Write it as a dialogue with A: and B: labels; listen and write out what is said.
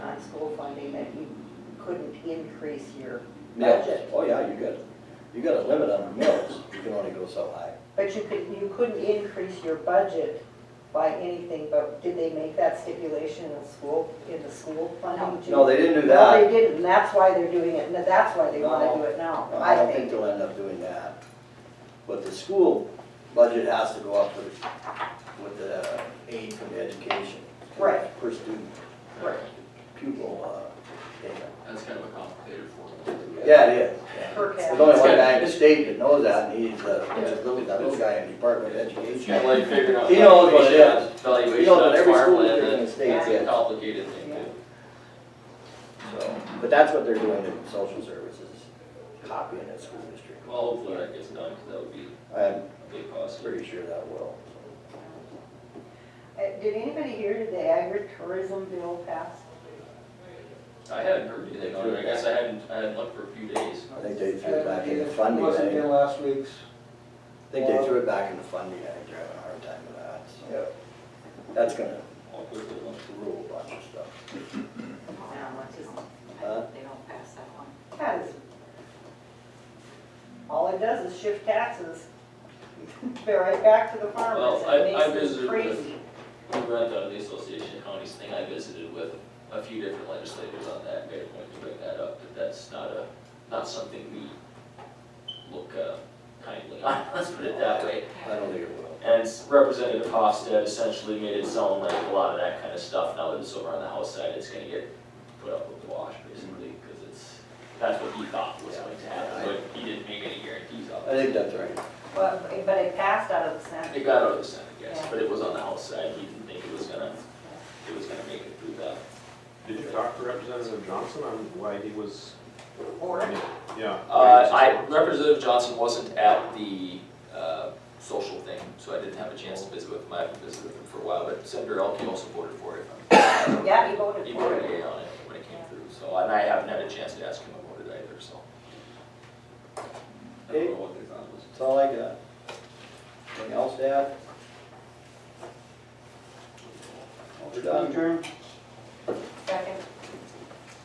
A: that you couldn't increase your
B: Mills,
A: budget.
B: oh yeah, you got, you got a limit on mills, you can only go so high.
A: But you could, you couldn't increase your budget by anything, but did they make that stipulation in the school, in the school funding? too?
B: No, they didn't do
A: No, they
B: that.
A: didn't, and that's why they're doing it, and that's why they wanna do it now,
B: No, I
A: I
B: don't think
A: think.
B: they'll end up doing that. But the school budget has to go up with, with the aid from the education.
A: Right.
B: Per student,
A: Right.
B: pupil, uh, payment.
C: That's kind of a complicated formula.
B: Yeah, it is. yeah.
A: Per
B: There's
A: capita.
B: only one guy in the state that knows that, and he's, uh, just look at that little guy in the Department of
D: It's
B: Education.
D: kind of like figuring out.
B: He knows what it is. You
D: Valuation
B: know, that
D: on
B: every school district in
D: farmland, uh,
B: the state
D: that's a
B: gets,
D: complicated thing too.
B: so, but that's what they're doing in social services, copying at school district.
D: Well, hopefully that gets done, because that would be
B: I'm
D: a big cost.
B: pretty sure that will.
A: Uh, Did anybody hear the agritourism bill pass?
D: I hadn't heard anything on it, I guess I hadn't, I hadn't looked for a few days.
B: I think they threw it back in the funding, I
E: Wasn't in
B: think
E: last week's.
B: they threw it back in the funding, I think they're having a hard time with that, so. That's gonna
D: I'll quickly look.
B: rule a bunch of stuff.
F: Now, what is,
B: Huh?
F: they don't pass that one.
A: Has. All it does is shift taxes. They're right back to the farmers,
D: Well, I- I
A: it makes them
D: visited with-
A: crazy.
D: We ran down the Association of Counties thing, I visited with a few different legislators on that, made a point to bring that up, but that's not a, not something we look uh, kindly on, let's put it that way.
B: I don't think it will.
D: And Representative Hofstad essentially made it sound like a lot of that kind of stuff, now that it's over on the House side, it's gonna get put up with the wash, basically, because it's, that's what he thought was going to happen, but he didn't make any guarantees of
B: I
D: it.
B: think that's right.
A: But, but it passed out of the Senate.
D: It got out of the Senate, yes, but it was on the House side, he didn't think it was gonna, it was gonna make it through that.
G: Did you talk to Representative Johnson on why he was?
A: Or-
G: Yeah.
D: Uh, I, Representative Johnson wasn't at the, uh, social thing, so I didn't have a chance to visit with him, I haven't visited with him for a while, but Senator Elke also voted for it.
A: Yeah, he voted
D: He
A: for
D: voted
A: it.
D: yea on it when it came through, so, and I haven't had a chance to ask him about it either, so. I don't know what their thought was.
B: That's all I got. Anything else, Dad? We're done.
E: Adjourn.